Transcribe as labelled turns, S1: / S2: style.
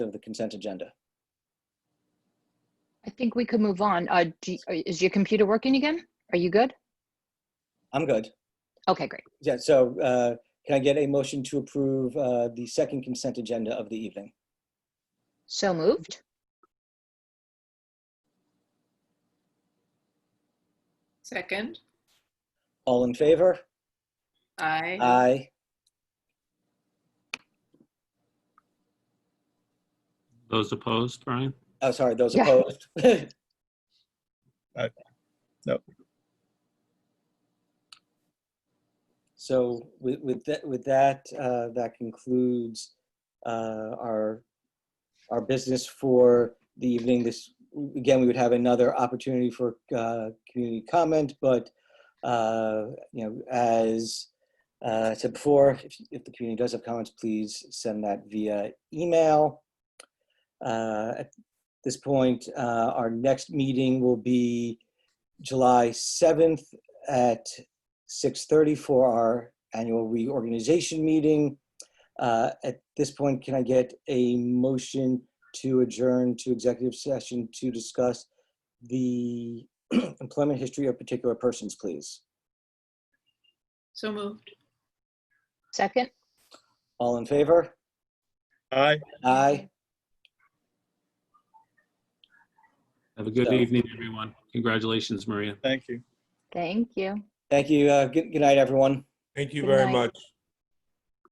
S1: of the consent agenda.
S2: I think we could move on. Uh, do, is your computer working again? Are you good?
S1: I'm good.
S2: Okay, great.
S1: Yeah, so uh, can I get a motion to approve uh, the second consent agenda of the evening?
S2: So moved.
S3: Second,
S1: All in favor?
S3: aye.
S1: Aye.
S4: Those opposed, Brian?
S1: Oh, sorry, those
S2: Yeah.
S1: opposed.
S5: Uh, no.
S1: So with, with that, with that, uh, that concludes, uh, our, our business for the evening. This, again, we would have another opportunity for, uh, community comment, but, uh, you know, as, uh, I said before, if, if the community does have comments, please send that via email. Uh, at this point, uh, our next meeting will be July 7th at 6:30 for our annual reorganization meeting. Uh, At this point, can I get a motion to adjourn to executive session to discuss the employment history of particular persons, please?
S3: So moved.
S2: Second?
S1: All in favor?
S5: Aye.
S1: Aye.
S4: Have a good
S1: So-
S4: evening, everyone. Congratulations, Maria.
S5: Thank you.
S2: Thank you.
S1: Thank you. Uh, Good good night, everyone.
S6: Thank you
S2: Good
S6: very
S2: night.
S6: much.